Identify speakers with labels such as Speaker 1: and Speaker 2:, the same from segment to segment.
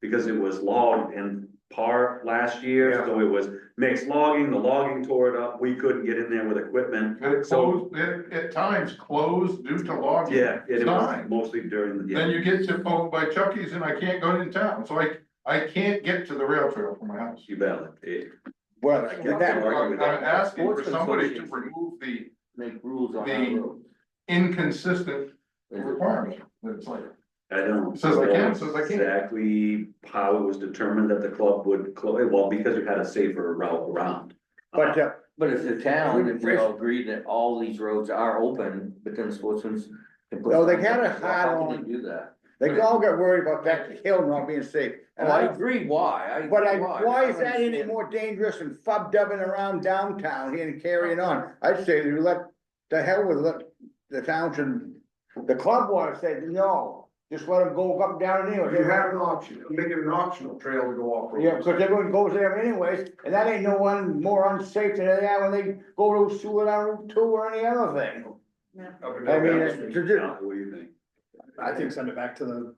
Speaker 1: because it was logged in par last year,
Speaker 2: Yeah.
Speaker 1: so it was mixed logging, the logging tore it up, we couldn't get in there with equipment.
Speaker 2: But it
Speaker 1: So-
Speaker 2: closed, it, at times closed due to logging.
Speaker 1: Yeah, it was
Speaker 2: Fine.
Speaker 1: mostly during, the
Speaker 2: Then
Speaker 1: yeah,
Speaker 2: you get to, oh, by Chucky's and I can't go in town, so I, I can't get to the rail trail from my house.
Speaker 1: you valid, it,
Speaker 3: Well,
Speaker 1: I
Speaker 3: that-
Speaker 1: can't
Speaker 3: that,
Speaker 1: argue
Speaker 2: I'm
Speaker 1: with
Speaker 2: I'm
Speaker 1: that.
Speaker 2: asking for
Speaker 3: Sportsman's
Speaker 2: somebody to
Speaker 3: association.
Speaker 2: remove the
Speaker 3: make rules on
Speaker 2: The-
Speaker 3: that road.
Speaker 2: inconsistent requirement, that it's like,
Speaker 1: I don't.
Speaker 2: Says I can,
Speaker 1: know
Speaker 2: says I can.
Speaker 1: Exactly how it was determined that the club would close, well, because you had a safer route around.
Speaker 3: But, uh,
Speaker 4: But if the town, if we all agree that all these roads are open, but then sportsmen's. can put
Speaker 3: No, they
Speaker 4: signs up,
Speaker 3: gotta
Speaker 4: well, how
Speaker 3: hide
Speaker 4: can
Speaker 3: on-
Speaker 4: they Do that.
Speaker 3: they all got worried about that hill not being safe.
Speaker 4: Oh,
Speaker 3: And
Speaker 4: I
Speaker 3: I,
Speaker 4: agree, why, I.
Speaker 3: but I, why is that any
Speaker 4: understand.
Speaker 3: more dangerous than fub dubbing around downtown here and carrying on? I'd say you let, the hell with let the town should, the club wanna say, no, just let them go up and down anyway.
Speaker 5: You have an option, make it an optional trail to go off. road.
Speaker 3: Yeah, because everyone goes there anyways, and that ain't no one more unsafe than they are when they go to Seward on Route Two or any other thing.
Speaker 5: Up and
Speaker 3: I
Speaker 5: down.
Speaker 3: mean, it's, it's just-
Speaker 1: What do you think?
Speaker 6: I think send it back to the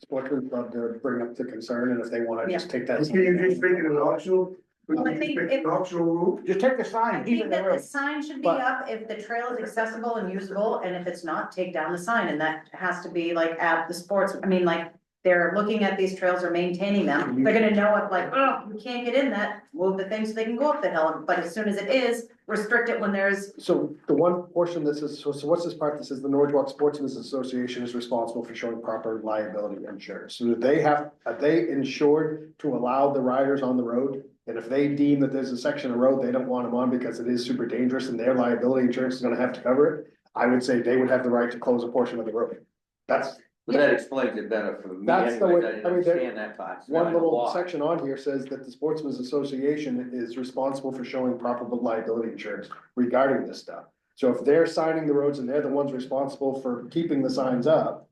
Speaker 6: sportsman club to bring up the concern, and if they wanna just take that.
Speaker 5: Can you just make it an optional? Could
Speaker 7: Well, I
Speaker 5: you just
Speaker 7: think
Speaker 5: make it an
Speaker 7: if-
Speaker 5: optional route?
Speaker 3: just take the
Speaker 7: I
Speaker 3: sign, keep it
Speaker 7: think
Speaker 3: in the
Speaker 7: that the
Speaker 3: road.
Speaker 7: sign should be
Speaker 3: But-
Speaker 7: up if the trail is accessible and usable, and if it's not, take down the sign, and that has to be like at the sports, I mean, like. They're looking at these trails or maintaining them, they're gonna know it like, oh, you can't get in that, move the thing so they can go up the hill, but as soon as it is, restrict it when there's.
Speaker 6: So the one portion this is, so so what's this part that says the Norwalk Sportsman's Association is responsible for showing proper liability insurance? So that they have, are they insured to allow the riders on the road? And if they deem that there's a section of road they don't want them on because it is super dangerous and their liability insurance is gonna have to cover it, I would say they would have the right to close a portion of the road. That's
Speaker 4: But that explains it better for me
Speaker 6: That's
Speaker 4: anyways,
Speaker 6: the
Speaker 4: I
Speaker 6: way-
Speaker 4: didn't
Speaker 6: I mean, there-
Speaker 4: understand that part. It's not
Speaker 6: One
Speaker 4: a
Speaker 6: little
Speaker 4: law.
Speaker 6: section on here says that the Sportsman's Association is responsible for showing proper liability insurance regarding this stuff. So if they're signing the roads and they're the ones responsible for keeping the signs up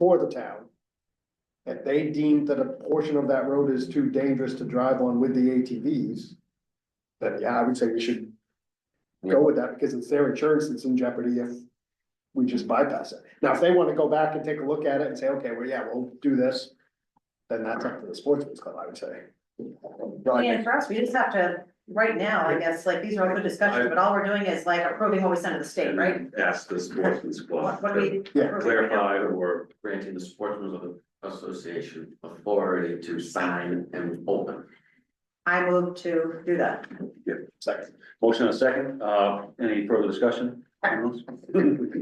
Speaker 6: for the town. If they deem that a portion of that road is too dangerous to drive on with the ATVs. Then yeah, I would say we should go with that because it's their insurance that's in jeopardy if we just bypass it. Now, if they want to go back and take a look at it and say, okay, well, yeah, we'll do this, then that's up to the sportsman's club, I would say.
Speaker 7: And for us, we just have to, right now, I guess, like, these are all good discussions, but all we're doing is like approving what we send to the state,
Speaker 1: And
Speaker 7: right?
Speaker 1: Ask the sportsman's club
Speaker 7: What what do
Speaker 1: to
Speaker 7: we?
Speaker 6: Yeah,
Speaker 1: clarify or
Speaker 8: granting the sportsman's association authority to sign and open.
Speaker 7: I move to do that.
Speaker 6: second.
Speaker 1: Motion and a second, uh, any further discussion?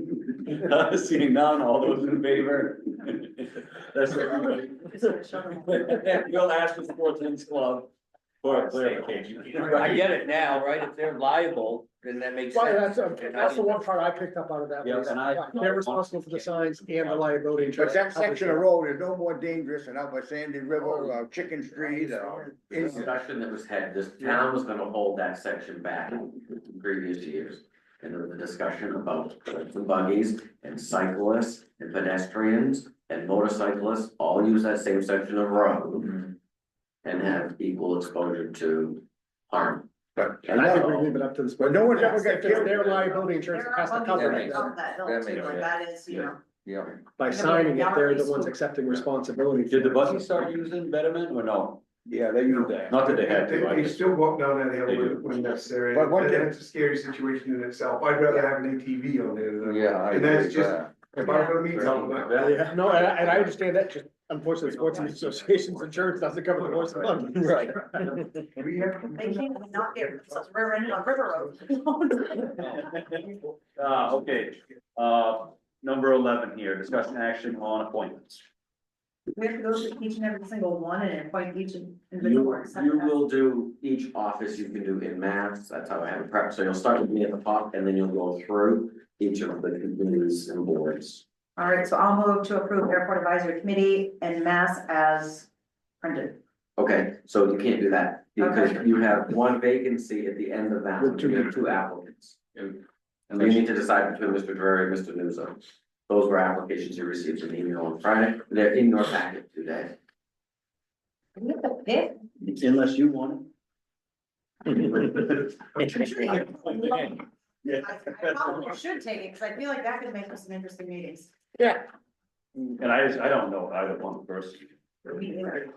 Speaker 1: Seeing none, all those in favor? That's everybody. You'll ask the Sportsman's Club for a clarification.
Speaker 4: I get it now, right, if they're liable, then that makes sense.
Speaker 6: that's the one part I picked up out of that.
Speaker 1: Yeah,
Speaker 6: was
Speaker 1: and I-
Speaker 6: They're responsible for the signs and the liability
Speaker 3: But
Speaker 6: insurance.
Speaker 3: that section of road is no more dangerous than out by Sandy River or Chicken
Speaker 1: Oh,
Speaker 3: Street or.
Speaker 8: The discussion that was had, this town was gonna hold that section back in previous years. And there was a discussion about the buggies and cyclists and pedestrians and motorcyclists all use that same section of road. And have equal exposure to harm.
Speaker 3: But-
Speaker 6: I
Speaker 8: And that's
Speaker 6: never
Speaker 8: all.
Speaker 6: leave it up to the.
Speaker 3: But no one's ever
Speaker 6: sportsman.
Speaker 3: got
Speaker 6: If it's
Speaker 3: killed.
Speaker 6: Their liability insurance
Speaker 7: There
Speaker 6: that has
Speaker 7: are
Speaker 6: to cover
Speaker 7: buggies
Speaker 6: it,
Speaker 4: makes
Speaker 6: then
Speaker 7: up that hill
Speaker 4: That
Speaker 7: too,
Speaker 4: makes
Speaker 7: like
Speaker 4: sense.
Speaker 7: that is, you know.
Speaker 4: Yeah.
Speaker 6: by signing it, they're the ones accepting responsibility.
Speaker 1: Did the buses start using betterment or no?
Speaker 3: Yeah, they use that.
Speaker 1: Not that they had
Speaker 5: They,
Speaker 1: to, I
Speaker 5: they
Speaker 1: just-
Speaker 5: still walk down that hill
Speaker 1: They do.
Speaker 5: when- when necessary,
Speaker 3: But
Speaker 5: and
Speaker 3: one thing-
Speaker 5: that's a scary situation in itself, I'd rather have an ATV on there than.
Speaker 4: Yeah, I
Speaker 5: And
Speaker 4: agree
Speaker 5: that's
Speaker 4: with
Speaker 5: just-
Speaker 4: that.
Speaker 5: If I'm gonna meet someone, I-
Speaker 6: Yeah, no, and I, and I understand that, just unfortunately, sportsman's association's insurance doesn't cover the horse club.
Speaker 4: Right.
Speaker 5: we have.
Speaker 7: They can't not get themselves river in on river road.
Speaker 1: Uh, okay, uh, number eleven here, discussion action on appointments.
Speaker 7: We have to go through each and every single one and appoint each individual.
Speaker 8: You,
Speaker 7: except
Speaker 8: you
Speaker 7: that.
Speaker 8: will do each office you can do in mass, that's how I have it prepped, so you'll start with me at the top and then you'll go through each of the committees and boards.
Speaker 7: All right, so I'll move to approve airport advisory committee and mass as printed.
Speaker 8: Okay, so you can't do that, because you have one vacancy at the end of that,
Speaker 6: With two
Speaker 8: you have two applicants. And and you need to decide between Mr. Drury and Mr. Newsom. Those were applications you received an email on Friday, they're in your packet today.
Speaker 7: We have the fifth?
Speaker 1: Unless you want it.
Speaker 7: I I probably should take it, because I feel like that could make for some interesting meetings.
Speaker 1: And I, I don't know either one person.
Speaker 7: Me either.